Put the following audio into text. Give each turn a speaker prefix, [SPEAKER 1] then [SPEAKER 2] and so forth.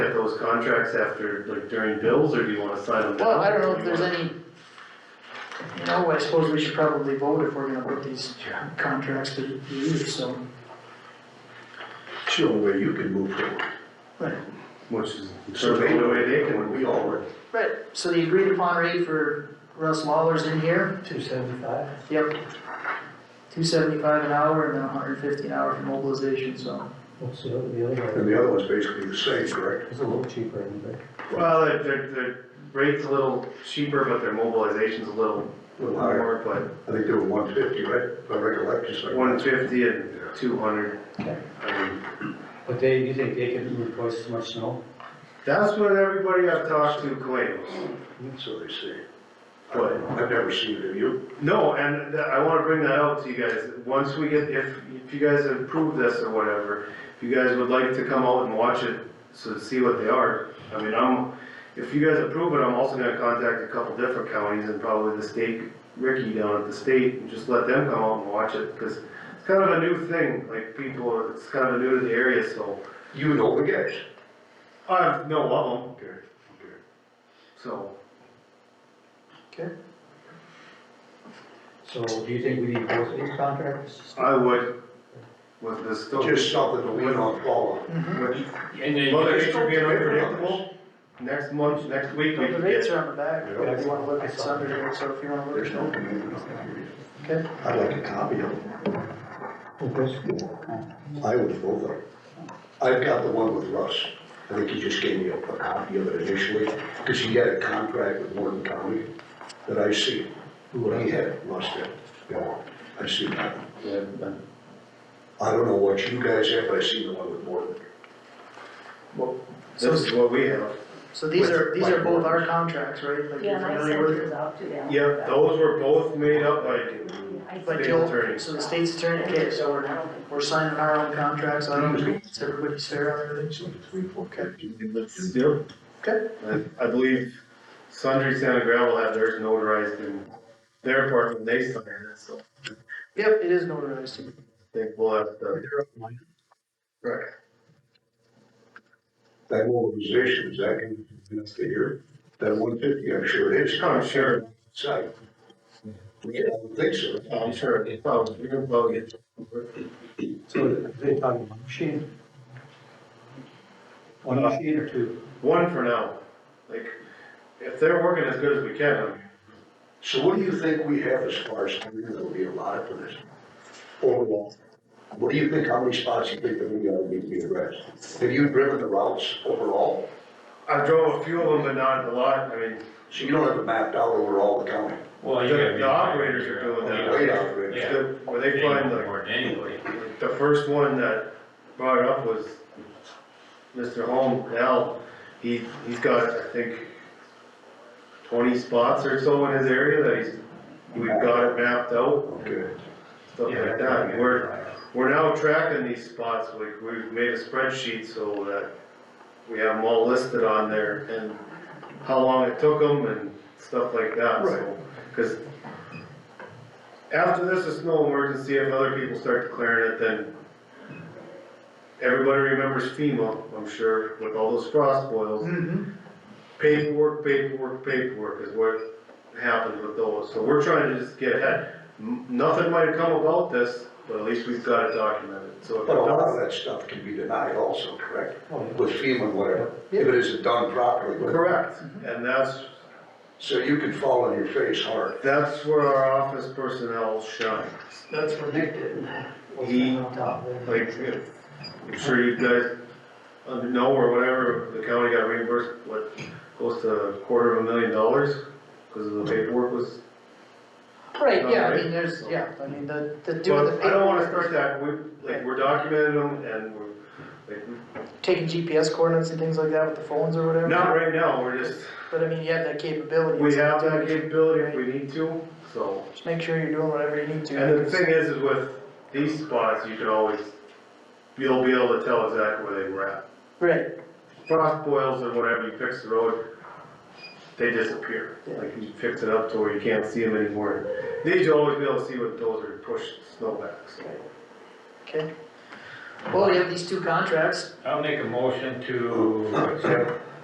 [SPEAKER 1] those contracts after, like during bills, or do you wanna sign them now?
[SPEAKER 2] Well, I don't know
[SPEAKER 1] Do
[SPEAKER 2] if
[SPEAKER 1] you
[SPEAKER 2] there's
[SPEAKER 1] wanna-
[SPEAKER 2] any, you know, I suppose we should probably vote if we're gonna put these contracts to use, so.
[SPEAKER 3] Show where you can move forward.
[SPEAKER 1] Which is, so they know where they can,
[SPEAKER 3] we all were.
[SPEAKER 2] Right, so the agreed upon rate for Russ Mahler's in here,
[SPEAKER 3] Two seventy-five?
[SPEAKER 2] yep. Two seventy-five an hour and then hundred and fifty an hour for mobilization, so.
[SPEAKER 4] What's the other, the other
[SPEAKER 3] And
[SPEAKER 4] one?
[SPEAKER 3] the other one's basically the same, correct?
[SPEAKER 4] It's a little cheaper, isn't it?
[SPEAKER 1] well, their, their, their rate's a little cheaper, but their mobilization's a little, little
[SPEAKER 3] Higher.
[SPEAKER 1] more, but
[SPEAKER 3] I think they were one fifty, right? If I recollect, just like.
[SPEAKER 1] one fifty and
[SPEAKER 3] Yeah.
[SPEAKER 1] two hundred.
[SPEAKER 4] Okay.
[SPEAKER 1] I mean,
[SPEAKER 4] But they, you think they can move twice as much snow?
[SPEAKER 1] that's what everybody I've talked to claims.
[SPEAKER 3] So they say.
[SPEAKER 1] What?
[SPEAKER 3] I've never seen it, have you?
[SPEAKER 1] No, and th- I wanna bring that out to you guys, once we get, if, if you guys approve this or whatever, if you guys would like to come out and watch it, so to see what they are, I mean, I'm, if you guys approve it, I'm also gonna contact a couple different counties and probably the state, Ricky down at the state, and just let them come out and watch it, cause it's kind of a new thing, like, people, are- it's kinda new to the area, so,
[SPEAKER 3] You know the guys.
[SPEAKER 1] I know of them,
[SPEAKER 3] Okay, okay.
[SPEAKER 1] so.
[SPEAKER 4] So do you think we need both of these contracts?
[SPEAKER 1] I would, with this still.
[SPEAKER 3] Just something to win on follow.
[SPEAKER 5] And then,
[SPEAKER 1] Mother nature being unpredictable, next month, next week, we
[SPEAKER 2] But the
[SPEAKER 1] can
[SPEAKER 2] rates
[SPEAKER 1] get,
[SPEAKER 2] are on the back, if you wanna look at some of it, so if you wanna look
[SPEAKER 3] There's
[SPEAKER 2] at
[SPEAKER 3] no
[SPEAKER 2] them.
[SPEAKER 3] commitment on that reason.
[SPEAKER 2] Okay.
[SPEAKER 3] I'd like a copy of it.
[SPEAKER 4] Okay.
[SPEAKER 3] I would have both of them. I've got the one with Russ. I think he just gave me a a copy of it initially, because he had a contract with Morton County that I see. What he had, Russ did. Yeah, I see that. I don't know what you guys have, but I see the one with Morton.
[SPEAKER 1] this is what we have.
[SPEAKER 2] So these are, these are both our contracts, right? Like you're
[SPEAKER 6] Yeah, and I
[SPEAKER 2] familiar
[SPEAKER 6] sent
[SPEAKER 2] with
[SPEAKER 6] yours out to them.
[SPEAKER 1] Yeah, those were both made up by
[SPEAKER 6] I
[SPEAKER 2] But
[SPEAKER 1] state
[SPEAKER 2] you'll-
[SPEAKER 1] attorney.
[SPEAKER 2] So the state's attorney, okay, so we're, we're signing our own contracts, I don't think it's everybody's fair on everything.
[SPEAKER 1] Yep. I I believe Sundry Santa Gravel had theirs notarized in their part when they signed it, so
[SPEAKER 2] Yep, it is notarized.
[SPEAKER 1] I think we'll have to. Right.
[SPEAKER 3] That mobilization, is that going to be enough to hear? That one fifty, I'm sure it is.
[SPEAKER 1] I'm sure,
[SPEAKER 3] Site. Yeah, I would think so.
[SPEAKER 1] I'm sure, it's probably, you're gonna probably get.
[SPEAKER 4] So they talking one machine? One machine or two?
[SPEAKER 1] One for now, like, if they're working as good as we can, I mean,
[SPEAKER 3] So what do you think we have as far as, money that'll be allotted for this? Overall, what do you think, how many spots you think that we gotta be, be addressed? Have you driven the routes overall?
[SPEAKER 1] I drove a few of them, but not a lot, I mean,
[SPEAKER 3] So you don't have it mapped out overall the county?
[SPEAKER 5] well,
[SPEAKER 1] the
[SPEAKER 5] you gotta.
[SPEAKER 1] the operators are doing that.
[SPEAKER 3] Way out, right?
[SPEAKER 5] Yeah.
[SPEAKER 1] The- Where they find the
[SPEAKER 5] More than anybody.
[SPEAKER 1] The first one that brought it up was Mr. Holm, Al, he, he's got, I think, twenty spots or so in his area that he's, we've got it mapped out,
[SPEAKER 3] Okay.
[SPEAKER 1] stuff like that. We're, we're now tracking these spots, like, we've made a spreadsheet so that we have them all listed on there and how long it took them and stuff like that, so. Cause after this is snow emergency, if other people start declaring it, then everybody remembers FEMA, I'm sure, with all those frost boils.
[SPEAKER 2] Mm-hmm.
[SPEAKER 1] Paperwork, paperwork, paperwork is what happened with those, so we're trying to just get ahead. M- Nothing might come about this, but at least we've got it documented, so if it
[SPEAKER 3] But a lot
[SPEAKER 1] does.
[SPEAKER 3] of that stuff can be denied also, correct?
[SPEAKER 4] Oh, yeah.
[SPEAKER 3] With FEMA and whatever, if it isn't done properly. but-
[SPEAKER 1] Correct,
[SPEAKER 2] Mm-hmm.
[SPEAKER 1] and that's,
[SPEAKER 3] So you can fall on your face hard.
[SPEAKER 1] that's where our office personnel shines.
[SPEAKER 4] That's what Nick did.
[SPEAKER 1] He-
[SPEAKER 4] On top of it.
[SPEAKER 1] Like, if- I'm sure you guys uh, know or whatever, the county got reimbursed, what, close to a quarter of a million dollars? Cause of the paperwork was,
[SPEAKER 2] Right, yeah, I
[SPEAKER 1] Alright.
[SPEAKER 2] mean, there's, yeah, I mean, the, the do with the.
[SPEAKER 1] but I don't wanna
[SPEAKER 2] paperwork
[SPEAKER 1] start that,
[SPEAKER 2] is
[SPEAKER 1] we, like, we're documenting them and we're, like,
[SPEAKER 2] Taking GPS coordinates and things like that with the phones or whatever.
[SPEAKER 1] Not right now, we're just,
[SPEAKER 2] But I mean, you have that capability.
[SPEAKER 1] we
[SPEAKER 2] so
[SPEAKER 1] have that
[SPEAKER 2] do-
[SPEAKER 1] capability if we need to, so.
[SPEAKER 2] Just make sure you're doing whatever you need to.
[SPEAKER 1] And the thing is, is with these spots, you can always, you'll be able to tell exactly where they were at.
[SPEAKER 2] Right,
[SPEAKER 1] Frost boils or whatever, you fix the road, they disappear. Like you fix it up to where you can't see them anymore. These you'll always be able to see what those are pushed snow back, so.
[SPEAKER 2] okay. Well, we have these two contracts,
[SPEAKER 5] I'll make a motion to accept